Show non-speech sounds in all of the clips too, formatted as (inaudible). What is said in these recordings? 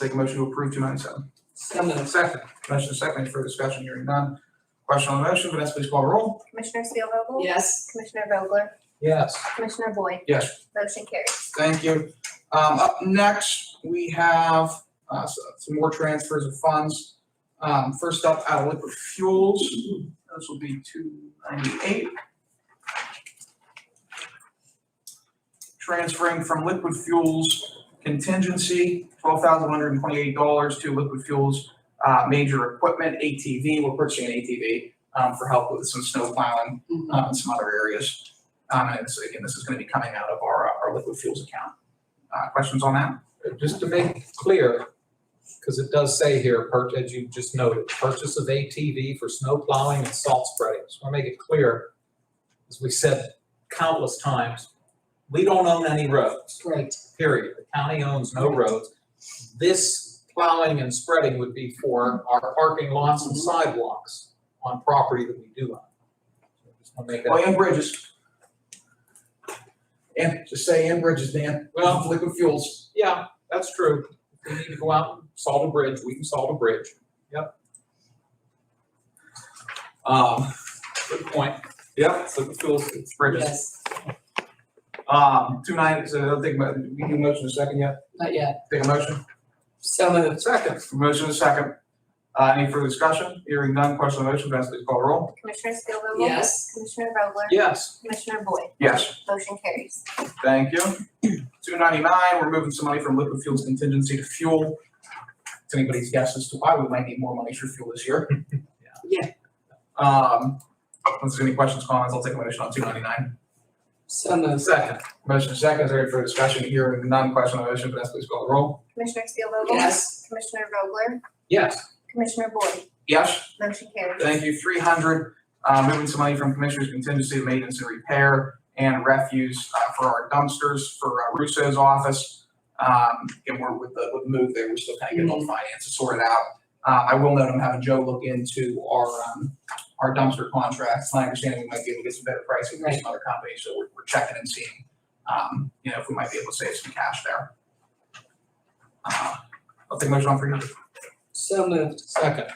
Take a motion to approve two ninety-seven. So moved. Second. Motion second, any further discussion, hearing none. Question on the motion, Vanessa, please call roll. Commissioner Spielvogel? Yes. Commissioner Vogler? Yes. Commissioner Boyd? Yes. Motion carries. Thank you. Um, up next, we have, uh, s- some more transfers of funds. Um, first up, out of liquid fuels, those will be two ninety-eight. Transferring from liquid fuels contingency, twelve thousand one hundred and twenty-eight dollars to liquid fuels, uh, major equipment, ATV, we're purchasing an ATV, um, for help with some snow plowing um, and some other areas. Um, and so again, this is gonna be coming out of our, uh, our liquid fuels account. Uh, questions on that? Just to make clear, because it does say here, pur- as you just noted, purchase of ATV for snow plowing and salt spreading. Just want to make it clear, as we said countless times, we don't own any roads, Great. period. The county owns no roads. This plowing and spreading would be for our parking lots and sidewalks on property that we do own. Just want to make Well, that, and bridges. And just say and bridges, Dan. Well- Liquid fuels. yeah, that's true. If we need to go out and salt a bridge, we can salt a bridge. Yep. Um, good point. Yep. Liquid fuels, it's bridges. Yes. Um, two nine, so I'll take, mo- we do motion in a second yet? Not yet. Take a motion? So moved. Second. Motion in a second. Uh, any further discussion? Hearing none, question on the motion, Vanessa, please call roll. Commissioner Spielvogel? Yes. Commissioner Vogler? Yes, Commissioner Boyd? Yes. Motion carries. Thank you. Two ninety-nine, we're moving some money from liquid fuels contingency to fuel. It's anybody's guess as to why we might need more money for fuel this year. Yeah. Um, if there's any questions, comments, I'll take a motion on two ninety-nine. So moved. Second. Motion second, is there any further discussion here? None, question on the motion, Vanessa, please call the roll. Commissioner Spielvogel? Yes. Commissioner Vogler? yes, Commissioner Boyd? Yes, Motion carries. thank you. Three hundred, uh, moving some money from commissioners contingency to maintenance and repair and refuse, uh, for our dumpsters, for uh, Russo's office. Um, and we're with the, with the move there, we're still kind of getting all the finances sorted out. Uh, I will note I'm having Joe look into our, um, our dumpster contracts. My understanding we might be able to get some better pricing from some other companies, so we're, we're checking and seeing, um, you know, if we might be able to save some cash there. Uh, I'll take a motion on three hundred. So moved. second,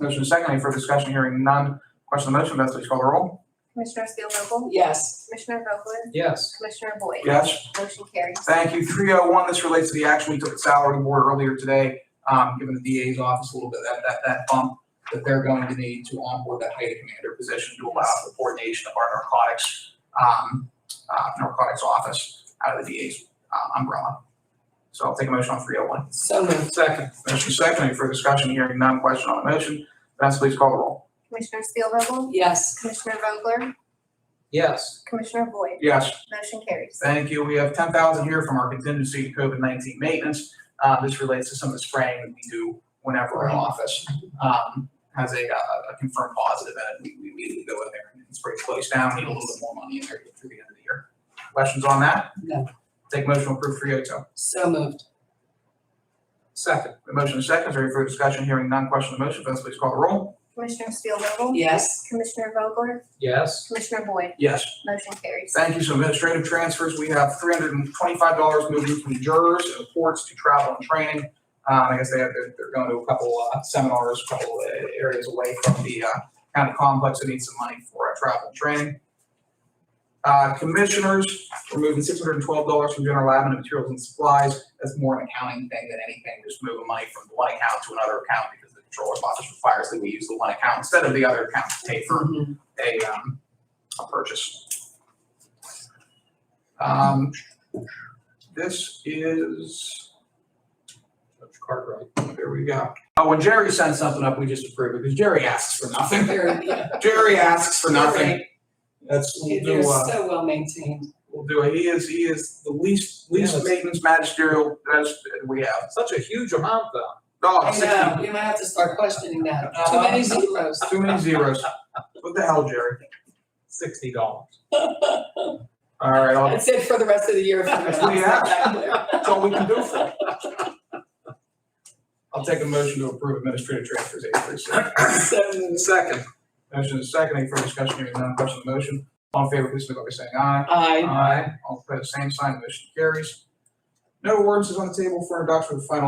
Motion is second, any further discussion, hearing none. Question on the motion, Vanessa, please call the roll. Commissioner Spielvogel? Yes. Commissioner Vogler? yes, Commissioner Boyd? Yes. Motion carries. Thank you. Three oh one, this relates to the action we took at salary board earlier today, um, giving the DA's office a little bit, that, that, that bump that they're going to need to onboard that height of commander position to allow for coordination of our narcotics, um, uh, narcotics office out of the DA's uh, umbrella. So I'll take a motion on three oh one. So moved. Second. Motion second, any further discussion, hearing none, question on the motion, Vanessa, please call the roll. Commissioner Spielvogel? Yes. Commissioner Vogler? yes, Commissioner Boyd? Yes. Motion carries. Thank you. We have ten thousand here from our contingency to COVID nineteen maintenance. Uh, this relates to some of the spraying that we do whenever an office, um, has a, uh, a confirmed positive and we, we immediately go in there and spray the place down, need a little bit more money in there to get through the end of the year. Questions on that? No. Take motion to approve three oh two. So moved. second, The motion is second, is there any further discussion? Hearing none, question on the motion, Vanessa please call the roll. Commissioner Spielvogel? Yes. Commissioner Vogler? yes, Commissioner Boyd? Yes. Motion carries. Thank you. So administrative transfers, we have three hundred and twenty-five dollars moving from jurors and courts to travel and training. Um, I guess they have, they're, they're going to a couple, uh, seminars, a couple uh, areas away from the, uh, county complex that needs some money for, uh, travel and training. Uh, commissioners, we're moving six hundred and twelve dollars from general admin to materials and supplies. That's more an accounting thing than anything, just moving money from one account to another account because the controller's office requires that we use the one account instead of the other account to pay for Mhm. a, um, a purchase. Um, this is, Judge Cartwright, there we go. Oh, when Jerry sends something up, we just approve it, because Jerry asks for nothing. (laughs) Very- yeah. Jerry asks for nothing. Very- That's, we'll They're do, uh, so well maintained. we'll do, it. he is, he is the least, least Yes. maintenance magisterial that we have. such a huge amount though. Oh, I know, Uh, sixty, we might have to start questioning that. Too many zeros. too many zeros. What the hell, Jerry? Sixty dollars. All right, I'll- That's it for the rest of the year. if I'm (laughs) That's what we have. not- That's all we can do for it. I'll take a motion to approve administrative transfers eight through six. So moved. Second, Motion is second, any further discussion, hearing none, question on the motion. All in favor, please signify by saying aye. Aye. Aye. All opposed, same sign, motion carries. No ordinances on the table for introduction with final